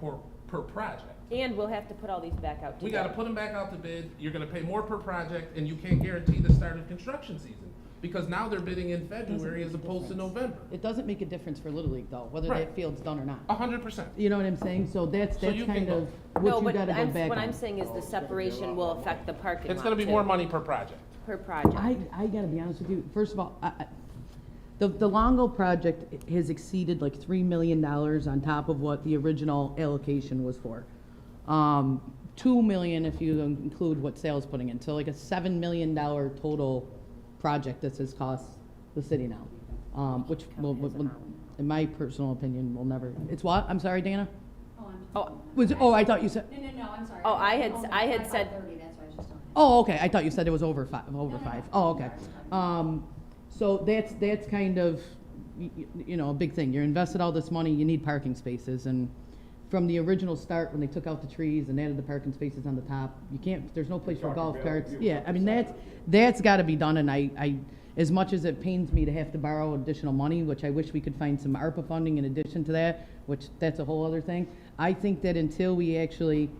per, per project. And we'll have to put all these back out We gotta together. put them back out to bid, you're gonna pay more per project, and you can't guarantee the start of construction season, because now they're bidding in February as opposed to November. It doesn't make a difference for Little League though, whether Right. that field's done or not. A hundred percent. You know what I'm saying? So that's, So that's you can kind go- of what you No, gotta but go I'm, back what I'm on. saying Oh, is the separation will affect the parking lot It's gonna be too, more money per project. Per project. I, I gotta be honest with you, first of all, I, I, the, the Longo project has exceeded like three million dollars on top of what the original allocation was for. Um, two million if you include what sales putting in, so like a seven million dollar total project this has cost the city now. Um, which will, will- will- in my personal opinion, will never, it's what, I'm sorry, Dana? Oh, I'm, Oh, Was, oh, I thought you said, no, no, no, I'm sorry. Oh, I had- only- I had thought said- Thirty, that's why I just don't. have- Oh, okay, I thought you said it was over five, over No, no, five. no. Oh, okay. Um, so that's, that's kind of, y- y- you know, a big thing. You're invested all this money, you need parking spaces, and from the original start, when they took out the trees and added the parking spaces on the top, you can't, there's no place for You're talking golf about carts. you. Yeah, I mean, that's, that's gotta be done, and I, I, as much as it pains me to have to borrow additional money, which I wish we could find some ARPA funding in addition to that, which, that's a whole other thing. I think that until we actually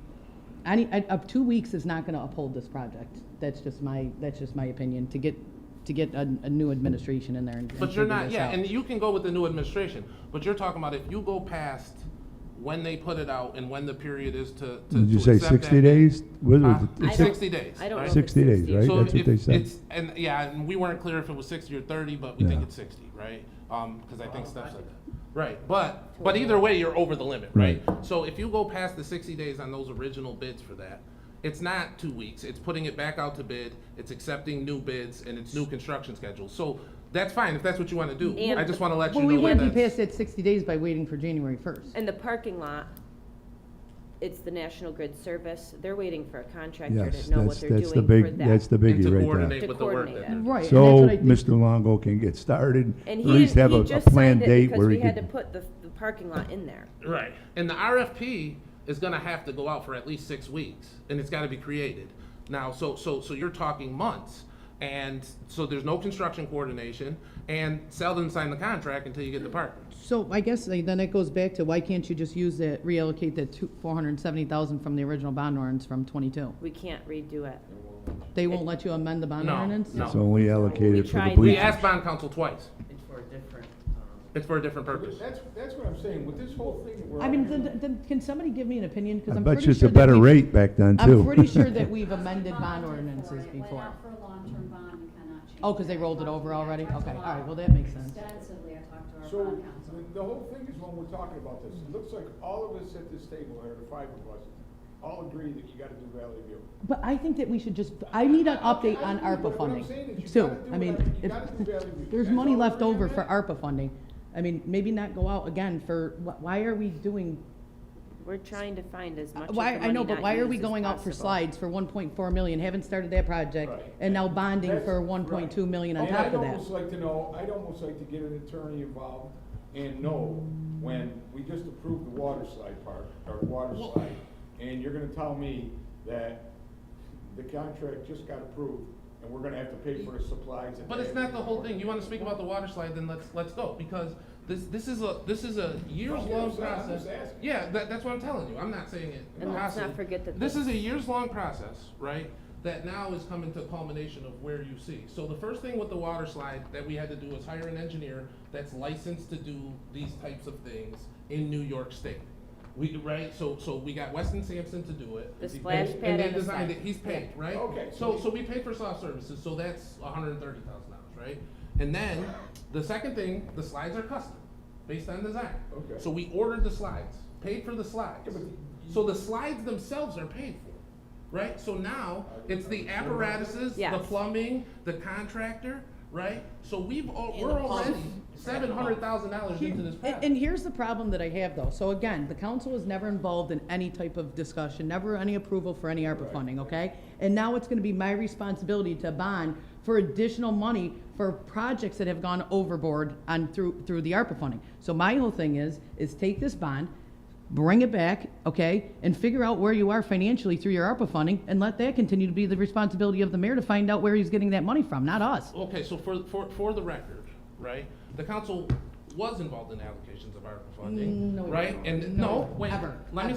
I need, I, up two weeks is not gonna uphold this project. That's just my, that's just my opinion, to get, to get a, a new administration in there and. and But you're figure not, this yeah, out. and you can go with the new administration, but you're talking about if you go past when they put it out and when the period is to, to. Did you to say accept that 60 bid. days? What was Huh? it? It's I don't- six- Sixty days. I don't know right? if it's 60 days, 60. right? Uh, So That's what if they said. it's- And, yeah, and we weren't clear if it was sixty or thirty, but we think Yeah. it's sixty, right? Um, cause I think Steph said that. Right, but, but either way, you're over the limit, right? So if you go past the sixty days on those original bids for that, it's not two weeks, it's putting it back out to bid, it's accepting new bids, and it's new construction schedules. So that's fine if that's what you wanna do. And- I just wanna let you Well, know we that wouldn't be that's- past that sixty days by waiting for January first. And the parking lot, it's the National Grid Service. They're waiting for a contractor Yes, to know what that's- they're that's doing the for big- that. That's the biggie and to right there. coordinate To with the work coordinate that it. they're doing. Right, and that's So what I think. Mr. Longo can get started, at And he least have didn't, a he a just signed planned it date because where we he had to can. put the, the parking lot in there. Right. And the RFP is gonna have to go out for at least six weeks, and it's gotta be created. Now, so, so, so you're talking months, and so there's no construction coordination, and Selden signed the contract until you get the partner. So I guess like, then it goes back to why can't you just use that, reallocate that two, four hundred and seventy thousand from the original bond ordinance from twenty-two? We can't redo it. They won't let you amend the bond No, ordinance? no. It's only allocated for tried the to- We bleachers. asked bond council twice. It's for a different, um. It's for a different purpose. That's, that's what I'm saying, with this whole thing that we're. I mean, then, then, can somebody give me an opinion? 'Cause I I'm bet pretty you it's sure a that better we've- rate back then, too. I'm pretty sure that we've amended Bonded bond for it. ordinances It before. went out for a long-term bond, you cannot change. Oh, 'cause they that. I rolled it talked over to- I already? talked to Okay, Bob all right, well, that makes sense. Extensively, I talked to our So, bond counsel. the- the whole thing is when we're talking about this, it looks like all of us at this table, or the five of us, all agree that you gotta do Valley View. But I think that we should just, I need an update on I ARPA agree, but what I'm funding. saying is you too. gotta do I mean, what I- you if- gotta do Valley View. there's That's money all left we're over doing. for ARPA funding. I mean, maybe not go out again for, wh- why are we doing, We're trying to find as much of the why, I know, money but not why are used we as going out for possible. slides for one point four million, haven't started that project, Right. and now bonding That's- for one point two million on And top of I'd that? almost like to know, I'd almost like to get an attorney involved and know when we just approved the water slide part, or water slide, and you're gonna tell me that the contract just got approved, and we're gonna have to pay for the supplies. and But it's not the whole thing. You wanna speak about the water slide, then let's, let's go, because this, this is a, this is a Okay, I'm years-long just- I'm process. just asking. Yeah, that, that's what I'm telling you. I'm not saying it. And let's possibly. not forget that This the- is a years-long process, right? That now is coming to culmination of where you see. So the first thing with the water slide that we had to do was hire an engineer that's licensed to do these types of things in New York State. We, right, so, so we got Weston Sampson to do it. The splash And- pad And they and the designed slide. it, he's paid, right? Okay, so So, we- so we paid for soft services, so that's hundred and thirty thousand dollars, right? And then, the second thing, the slides are custom, based on design. Okay. So we ordered the slides, paid for the slides. Yeah, but- So the slides themselves are paid for, right? So now, it's the apparatuses, the Yes. plumbing, the contractor, right? So we've, al- we're already seven hundred thousand dollars into this And, project. and here's the problem that I have though. So again, the council was never involved in any type of discussion, never any approval for any ARPA funding, okay? And now it's gonna be my responsibility to bond for additional money for projects that have gone overboard on through, through the ARPA funding. So my whole thing is, is take this bond, bring it back, okay? And figure out where you are financially through your ARPA funding and let that continue to be the responsibility of the mayor to find out where he's getting that money from, not us. Okay, so for, for, for the record, right, the council was involved in allocations of ARPA funding, Mm, No, right? And, no, no, wait, ever, let me